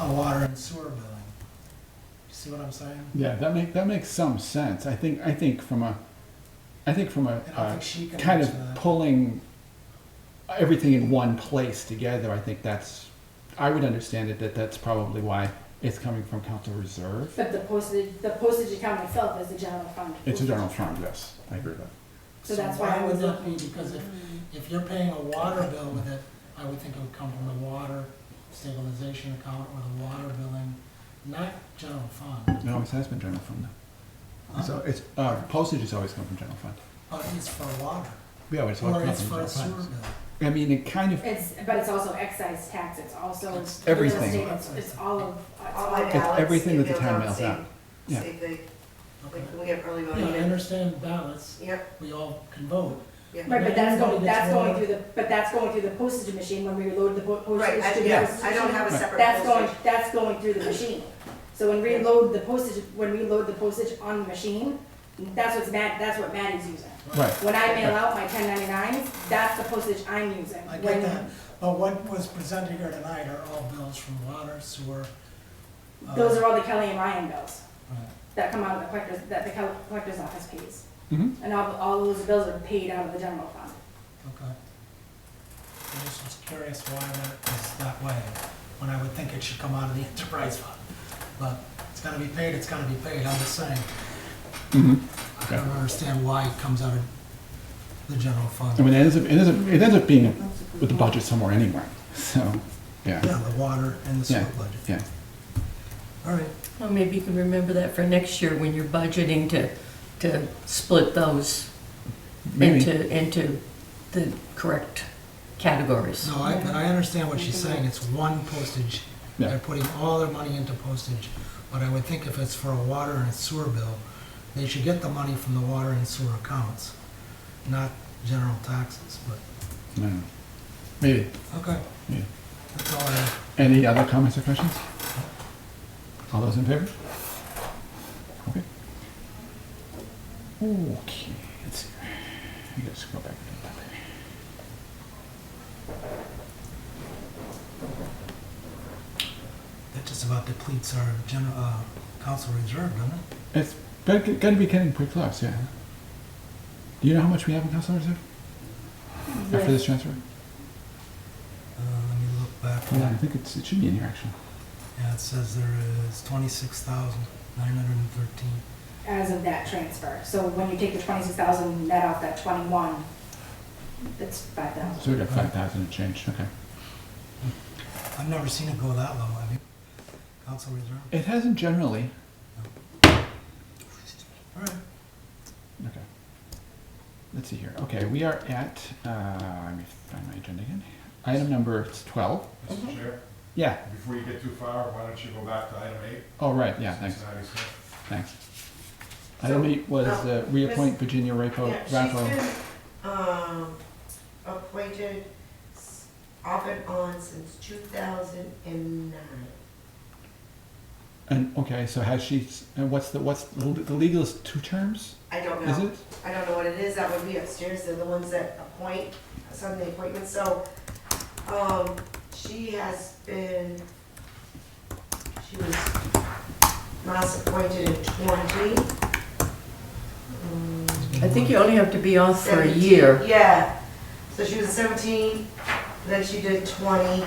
a water and sewer billing. See what I'm saying? Yeah, that make that makes some sense. I think I think from a, I think from a, I don't uh think she can kind answer of that. pulling everything in one place together. I think that's I would understand it that that's probably why it's coming from council reserve. But the postage, the postage account itself is a general fund. It's a general fund. Yes, I agree with that. So that's why I was would Mm. that be? looking. Because if, if you're paying a water bill with it, I would think it would come from the water stabilization account or the water billing, not general fund. It always has been general fund. Though. Huh? So it's uh, postage has always come from general fund. But it's for water, Yeah, but it's always or come it's from for general a sewer fund. bill. I mean, it kind of It's, but it's also excise tax, it's also. It's real everything. estate, It's it's all of, it's All all my of it's ballots, everything that the emails town out, mails same- out. Yeah. Same thing, Okay. like, we have early Yeah, I voting. and- understand ballots, Yep, we all can vote. yep. Right, but that's going, Everybody gets that's going one. through the, but that's going through the postage machine when we reload the po- Right, postage I, to the yes, I postage don't have a machine. separate That's going, postage. that's going through the machine. So when we load the postage, when we load the postage on the machine, that's what's Matt, that's what Maddie's using. right. When I mail out my ten ninety-nines, that's the postage I'm using. I When- get that, but what was presented here tonight are all bills from water, sewer. uh, Those are all the Kelly and Ryan bills right. that come out of the collector's, that the col- collector's office pays. hmm And all, all those bills are paid out of the general fund. Okay. I just was curious why that is that way, when I would think it should come out of the enterprise fund. But it's gotta be paid, it's gotta be paid, I'm just saying. hmm I don't understand why it comes out of the general fund. I mean, it ends up it ends up, it ends up being with the budget somewhere anyway. So Yeah, the water and the sewer Yeah. budget. Yeah. All right, Well, maybe you can remember that for next year when you're budgeting to, to split those Maybe. into, into the correct categories. no, I, but I understand what she's saying, it's one postage. Yeah. They're putting all their money into postage, but I would think if it's for a water and sewer bill, they should get the money from the water and sewer accounts, not general taxes, but. No, no. Maybe. Okay. Yeah. That's all I have. Any other comments or questions? All those in favor? Okay. Okay, let's see. I gotta scroll back. to the top That just about depletes our general, uh, council reserve, doesn't it? there. It's got- gotta be getting pretty close, yeah. Do you know how much we have in council reserve after this transfer? Uh, let me look back. Yeah, I think it's, it should be in here, actually. Yeah, it says there is twenty-six thousand, nine hundred and thirteen. As of that transfer. So when you take the twenty-six thousand net off that twenty-one, it's five thousand. So we got five thousand and change, okay. I've never seen it go that low, have you? Council reserve? It hasn't generally. All right. Okay. Let's see here. Okay, we are at, uh, let me find my agenda again. Item number twelve. Mr. Chair, Yeah, before you get too far, why don't you go back to item eight? Oh, right, yeah, thanks, Cincinnati Smith. thanks. Item eight was uh, reappoint Virginia Rapo, oh, Yeah, she's Raffo. been, um, appointed s- off and on since two thousand and nine. And, okay, so has she, s- and what's the, what's, the the legal is two terms, I don't is know, it? I don't know what it is, that would be upstairs, they're the ones that appoint, some of the appointments, so, um, she has been, she was last appointed in twenty. Um, I think you only have to be off for a 17 year. Yeah, so she was seventeen, then she did twenty.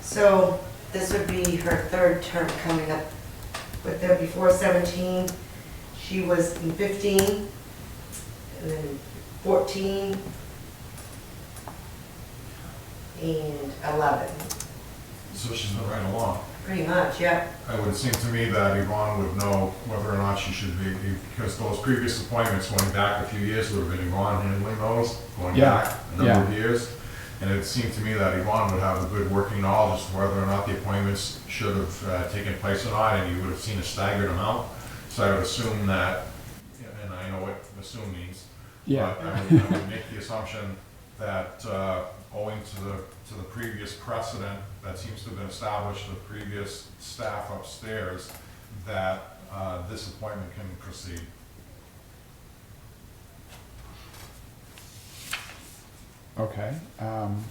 So this would be her third term coming up, but then before seventeen, she was in fifteen, and then fourteen, and eleven, So she's been right along. pretty much, yeah. It would seem to me that Yvonne would know whether or not she should be, because those previous appointments going back a few years would have been Yvonne handling those, going Yeah, back a number of years. And it seemed to me that Yvonne would have a good working knowledge of whether or not the appointments should have uh, taken place or not, and you would have seen a staggered amount. So I would assume that, and I know what assume means, Yeah, Uh, But I would, I would make the assumption that uh, owing to the, to the previous precedent that seems to have been established with previous staff upstairs, that uh, this appointment can proceed. okay, um,